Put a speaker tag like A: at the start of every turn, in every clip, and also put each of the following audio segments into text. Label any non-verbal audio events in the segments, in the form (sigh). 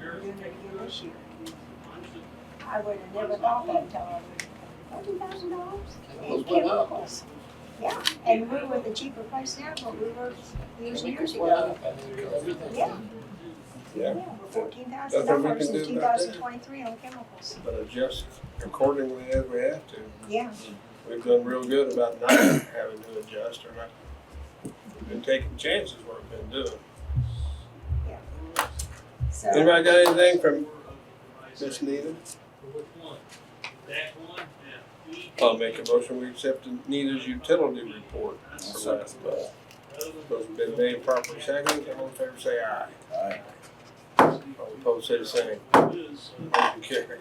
A: doing it again this year. I would have never thought that until I was, forty thousand dollars?
B: Well,
A: in
B: it's went up.
A: chemicals. Yeah, and we were the cheaper place now, but we were years and years
B: It's went
A: ago.
B: up. I mean, everything's-
A: Yeah. Yeah,
C: Yeah,
A: we're fourteen thousand
C: Nothing we
A: dollars
C: can do
A: in two
C: about that.
A: thousand twenty-three on chemicals.
C: but adjust accordingly as we have to.
A: Yeah,
C: We've done real good about not having to adjust or not, been taking chances what we've been doing.
A: so.
C: Anybody got anything from Miss Needham? I'll make a motion, we accept Nita's utility report. for last month. Those have been made properly seconded, all in favor say aye.
D: Aye.
C: All opposed say the same. Motion carried.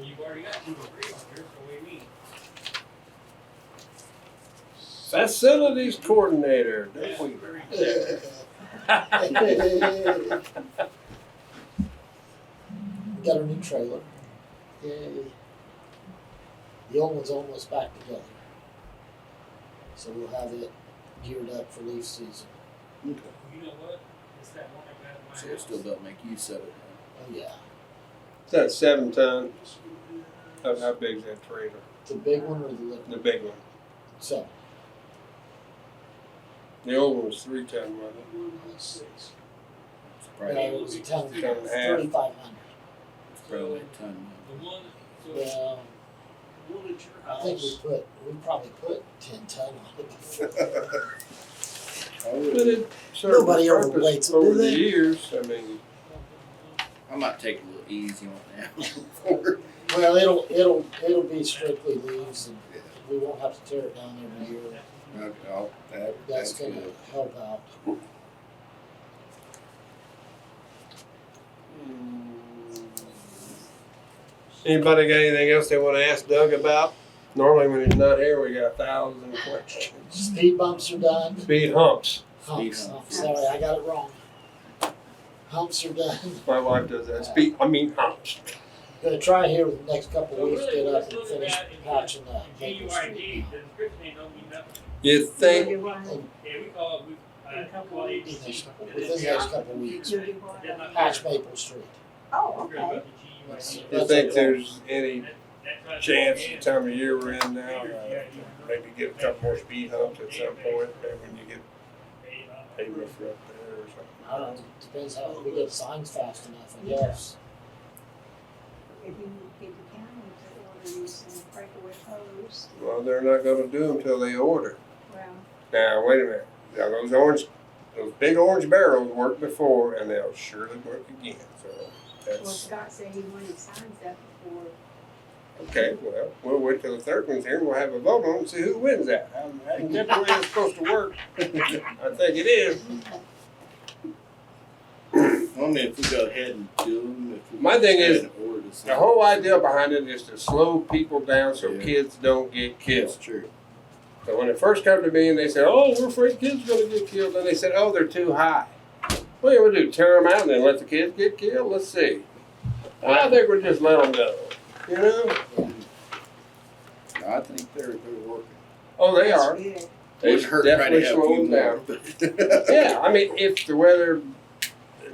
E: You've already got two or three on here, so what do you mean?
C: Facilities coordinator, Doug Weaver.
B: Got a new trailer. Yay. The old one's almost back together. So we'll have it geared up for leaf season.
D: Okay.
E: You know what? It's that one I got in my
D: So uh, it
E: house.
D: still doesn't make use of it.
B: Oh, yeah.
C: Is that seven ton? How, how big is that trailer?
B: The big one or the little
C: The big one.
B: seven?
C: The old one was three ton, wasn't it?
B: Six.
D: It's
B: No,
D: probably,
B: it was a ton,
E: Ten
C: and a half.
B: thirty-five hundred.
D: it's probably a ton.
E: The one, so the
B: Well,
E: one at your
B: I think we
E: house.
B: put, we probably put ten ton on it before.
C: But it served
B: Nobody
C: Nobody
B: ever
C: purpose
B: waits, do
C: over the
B: they?
C: years. I mean,
D: I might take a little easy on that.
B: Well, it'll, it'll, it'll be strictly leaves and we won't have to tear it down every year.
D: (laughs) Okay, I'll- that-
B: That's
D: that's
B: gonna
D: good.
B: help out.
C: hmm. anybody got anything else they want to ask Doug about? Normally, when he's not here, we got a thousand questions.
B: Speed bumps are done.
C: Speed humps.
B: Humps,
D: Speed
B: oh,
D: humps.
B: sorry, I got it wrong. Humps are done. (laughs)
C: My wife does that. Speed. I mean humps.
B: Gonna try here with the next couple
E: So
B: of weeks,
E: really,
B: get up
E: let's
B: and
E: look
B: finish
E: at it
B: patching the
E: in
B: Maple
E: GUID,
B: Street.
E: the description ain't don't mean nothing.
C: You think?
A: You'll do what?
E: Yeah, we call it, we, uh, call it
B: Within
E: ABC.
B: the next couple of weeks,
A: You'll do what?
B: patch Maple Street.
A: Oh, okay.
C: You think there's any chance the time of year we're in now? Uh, maybe get a couple more speed humps at some point, and when you get pavement for up there or something.
B: I don't know, depends how, we get signs fast enough, I guess.
A: If you give the county the orders and breakaway hose,
C: Well, they're not gonna do them till they order.
A: well,
C: Now, wait a minute, now those orange, those big orange barrels worked before and they'll surely work again, so
A: well,
C: that's,
A: Scott said he wanted signs up before.
C: okay, well, we'll wait till the third one's here and we'll have a vote on it and see who wins that. Um, That's (laughs) the way it's supposed to work. I think it is.
D: (laughs) I mean, if we go ahead and do them, if we.
C: My thing
D: go
C: is,
D: ahead and order this
C: The
D: thing,
C: whole idea behind it is to slow people down so
D: Yeah.
C: kids don't get killed.
D: It's true.
C: So when it first came to me and they said, oh, we're afraid kids are going to get killed, and they said, oh, they're too high. What do we do? Tear them out and then let the kids get killed? Let's see. I think we'll just let them go. You know?
D: I think they're, they're working.
C: Oh, they
A: That's
C: are.
A: good.
C: They
D: Wouldn't hurt trying to
C: definitely
D: have a
C: slow
D: few
C: them down.
D: more, but- (laughs)
C: Yeah, I mean, if the weather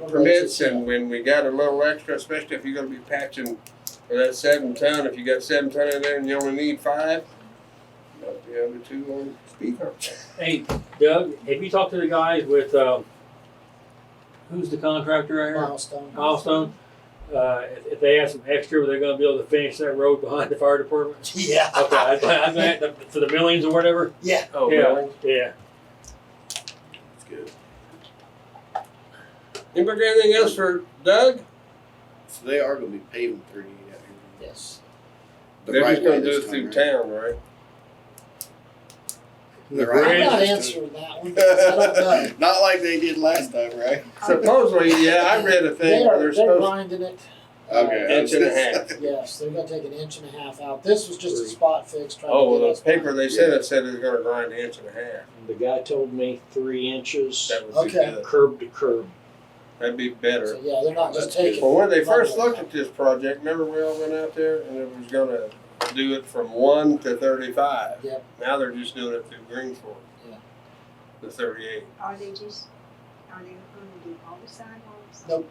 C: permits and when we got a little extra, especially if you're going to be patching for that seven ton, if you got seven ton in there and you only need five, about the other two on speed hump.
F: Hey, Doug, have you talked to the guys with, um, who's the contractor right here?
B: Milestone.
F: Milestone? Uh, if- if they ask some extra, were they gonna be able to finish that road behind the fire department?
B: Yeah. (laughs)
F: Okay, I, I, I, for the millions or whatever?
B: Yeah,
C: Oh,
F: Yeah.
C: really?
F: Yeah.
D: It's good.
C: uh, Anybody got anything else for Doug?
D: So they are gonna be paving thirty-eight out here.
B: yes.
D: The
C: They're
D: right
C: just gonna
D: way
C: do
D: this
C: it through
D: right?
C: town, right?
D: The
B: I'm
D: right
B: not
D: way.
B: answering that one, 'cause I don't know.
D: (laughs) Not like they did last time, right?
C: Supposedly, yeah, I read a
B: They
C: thing where
B: are,
C: they're
B: they're
C: supposed
B: grinding it. Uh,
D: Okay.
C: to inch and a half.
B: Yes, they're gonna take an inch and a half out. This was just a spot fix trying
C: Oh,
B: to get
C: well,
B: us.
C: the paper they sent us said it's gonna grind an inch and a half.
G: The guy told me three inches,
C: That would be
B: Okay.
C: good.
G: curb to curb.
C: That'd be
B: So,
C: better.
B: yeah, they're not just
D: That's good.
B: taking.
C: Well, when they first looked at this project, remember we all went out there and it was gonna do it from one to thirty-five?
B: Yep.
C: Now they're just doing it through Greensport.
B: Yeah.
C: The thirty-eight.
A: Are they just, are they gonna do all the sidewalks?
B: Nope.